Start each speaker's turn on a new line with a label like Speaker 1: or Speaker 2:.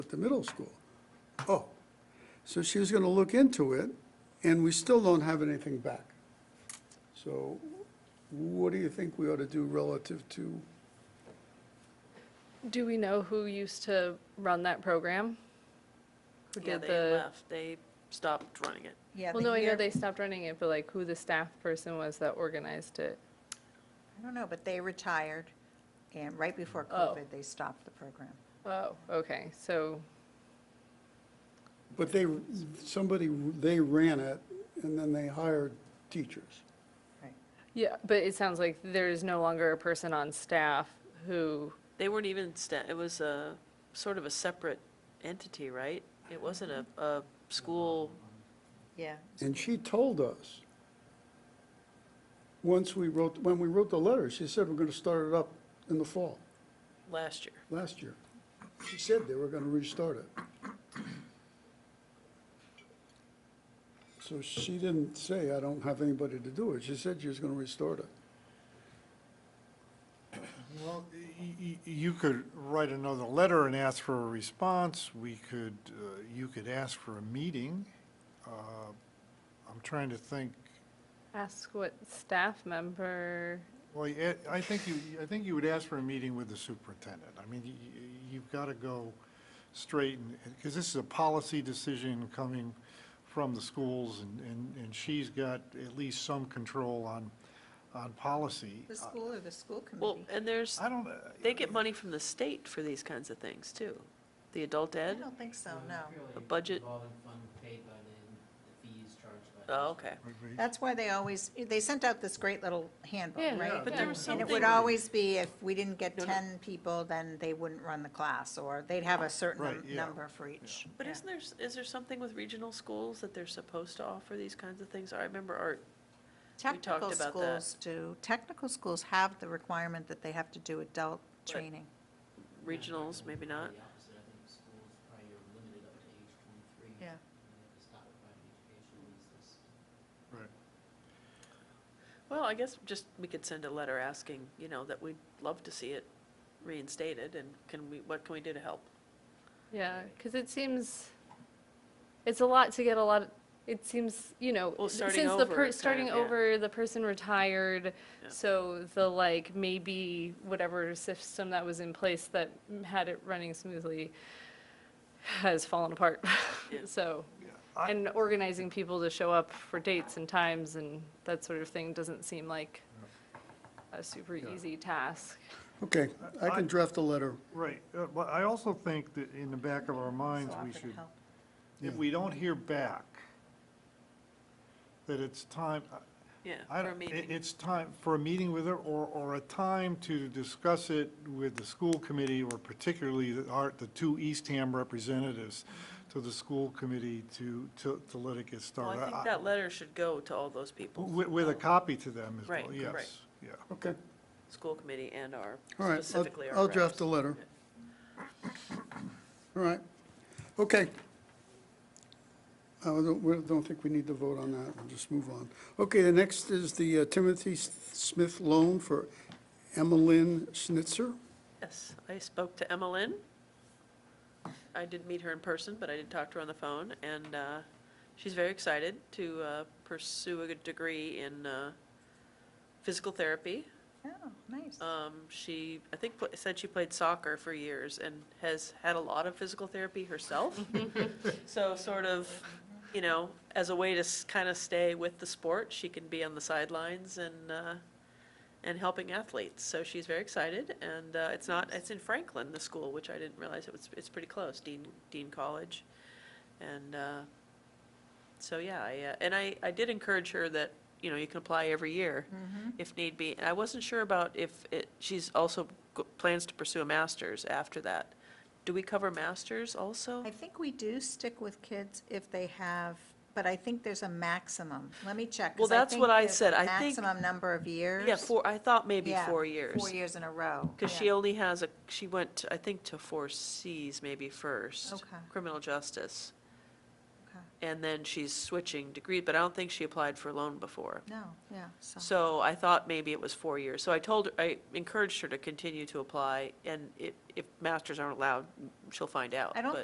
Speaker 1: at the middle school. Oh, so she was going to look into it, and we still don't have anything back. So what do you think we ought to do relative to,
Speaker 2: Do we know who used to run that program? Who
Speaker 3: Yeah,
Speaker 2: did
Speaker 3: they
Speaker 2: the?
Speaker 3: left. They stopped running it.
Speaker 4: Yeah,
Speaker 2: Well,
Speaker 4: the
Speaker 2: no, I know
Speaker 4: year-
Speaker 2: they stopped running it, but like who the staff person was that organized it?
Speaker 4: I don't know, but they retired, and right before
Speaker 2: Oh.
Speaker 4: COVID, they stopped the program.
Speaker 2: Oh, okay, so,
Speaker 1: but they, somebody, they ran it, and then they hired teachers.
Speaker 4: Right.
Speaker 2: yeah, but it sounds like there is no longer a person on staff who,
Speaker 3: They weren't even, sta- it was a, sort of a separate entity, right? It wasn't a, a school,
Speaker 4: Yeah.
Speaker 1: And she told us, once we wrote, when we wrote the letter, she said, we're going to start it up in the fall,
Speaker 3: last year.
Speaker 1: last year. She said they were going to restart it. So she didn't say, I don't have anybody to do it. She said she was going to restart it.
Speaker 5: Well, y- y- you could write another letter and ask for a response. We could, uh, you could ask for a meeting. Uh, I'm trying to think,
Speaker 2: ask what staff member,
Speaker 5: well, you- I think you, I think you would ask for a meeting with the superintendent. I mean, y- y- you've got to go straight, because this is a policy decision coming from the schools, and- and and she's got at least some control on, on policy.
Speaker 4: The school or the school
Speaker 3: Well,
Speaker 4: committee?
Speaker 3: and there's,
Speaker 5: I don't, uh,
Speaker 3: they get money from the state for these kinds of things, too. The adult
Speaker 4: I
Speaker 3: ed,
Speaker 4: don't think so, no.
Speaker 3: A budget?
Speaker 6: Revolving fund paid by the, the fees charged by. the
Speaker 3: oh, okay.
Speaker 5: would be-
Speaker 4: That's why they always, they sent out this great little
Speaker 2: Yeah,
Speaker 4: handbook,
Speaker 2: Yeah.
Speaker 4: right?
Speaker 3: But there was
Speaker 4: And it
Speaker 3: something,
Speaker 4: would always be if we didn't get
Speaker 3: No, no.
Speaker 4: 10 people, then they wouldn't run the class, or they'd have a certain
Speaker 5: Right,
Speaker 4: num-
Speaker 5: yeah.
Speaker 4: number for each.
Speaker 3: but
Speaker 4: Yeah.
Speaker 3: isn't there, s- is there something with regional schools that they're supposed to offer these kinds of things? I remember Art, talked
Speaker 4: Technical
Speaker 3: about that.
Speaker 4: schools do, technical schools have the requirement that they have to do adult training.
Speaker 3: regionals, maybe not.
Speaker 6: The opposite, I think schools probably are limited up to age twenty-three.
Speaker 4: Yeah.
Speaker 6: And if it's not providing education, it's this.
Speaker 5: right.
Speaker 3: Well, I guess just, we could send a letter asking, you know, that we'd love to see it reinstated, and can we, what can we do to help?
Speaker 2: yeah, because it seems, it's a lot to get a lot, it seems, you know,
Speaker 3: Well, starting
Speaker 2: since the,
Speaker 3: over,
Speaker 2: per-
Speaker 3: kind of,
Speaker 2: starting
Speaker 3: yeah.
Speaker 2: over, the person retired,
Speaker 3: Yeah.
Speaker 2: so the like, maybe whatever system that was in place that had it running smoothly has fallen apart.
Speaker 3: Yeah.
Speaker 2: So,
Speaker 5: I-
Speaker 2: and organizing people to show up for dates and times and that sort of thing doesn't seem like a super easy task.
Speaker 1: Okay, I can draft a letter.
Speaker 5: Right, uh, but I also think that in the back of our minds,
Speaker 4: So I
Speaker 5: we
Speaker 4: could
Speaker 5: should,
Speaker 4: help.
Speaker 5: if we don't hear back, that it's time,
Speaker 3: Yeah,
Speaker 5: I
Speaker 3: for a
Speaker 5: don't, it-
Speaker 3: meeting.
Speaker 5: it's time for a meeting with her, or, or a time to discuss it with the school committee, or particularly the, our, the two Eastham representatives to the school committee to, to, to let it get
Speaker 3: Well,
Speaker 5: started.
Speaker 3: I think that letter should go to all those people. Um,
Speaker 5: With, with a copy to them as
Speaker 3: Right,
Speaker 5: well,
Speaker 3: right.
Speaker 5: yes, yeah.
Speaker 1: Okay,
Speaker 3: School committee and our,
Speaker 1: all right. I'll-
Speaker 3: specifically our.
Speaker 1: I'll draft a
Speaker 3: reps.
Speaker 1: letter. All right. Okay. I don't, we don't think we need to vote on that. We'll just move on. Okay, the next is the uh, Timothy S- Smith loan for Emmeline Schnitzer.
Speaker 3: Yes, I spoke to Emma Lynn. I did meet her in person, but I did talk to her on the phone, and uh, she's very excited to uh, pursue a degree in uh, physical therapy.
Speaker 4: Oh, nice.
Speaker 3: Um, She, I think, pla- said she played soccer for years and has had a lot of physical therapy herself. So sort of, you know, as a way to kind of stay with the sport, she can be on the sidelines and, uh, and helping athletes. So she's very excited, and uh, it's not, it's in Franklin, the school, which I didn't realize it was, it's pretty close, Dean, Dean College. And uh, so, yeah, I, uh, and I, I did encourage her that, you know, you can apply every year
Speaker 4: Mm-hmm.
Speaker 3: if need be. And I wasn't sure about if it, she's also g- plans to pursue a master's after that. Do we cover masters also?
Speaker 4: I think we do stick with kids if they have, but I think there's a maximum. Let me check. 'cause
Speaker 3: Well, that's
Speaker 4: think
Speaker 3: what I
Speaker 4: there's a
Speaker 3: said. I think-
Speaker 4: Maximum number of years.
Speaker 3: Yeah, four, I thought maybe
Speaker 4: Yeah,
Speaker 3: four years.
Speaker 4: Four years in a row.
Speaker 3: Because
Speaker 4: Yeah.
Speaker 3: she only has a, she went, I think, to four Cs maybe first.
Speaker 4: Okay.
Speaker 3: Criminal justice.
Speaker 4: Okay.
Speaker 3: And then she's switching degree, but I don't think she applied for loan before.
Speaker 4: No, yeah, so,
Speaker 3: So I thought maybe it was four years. So I told, her I encouraged her to continue to apply, and if, if masters aren't allowed, she'll find out.
Speaker 4: I don't
Speaker 3: but-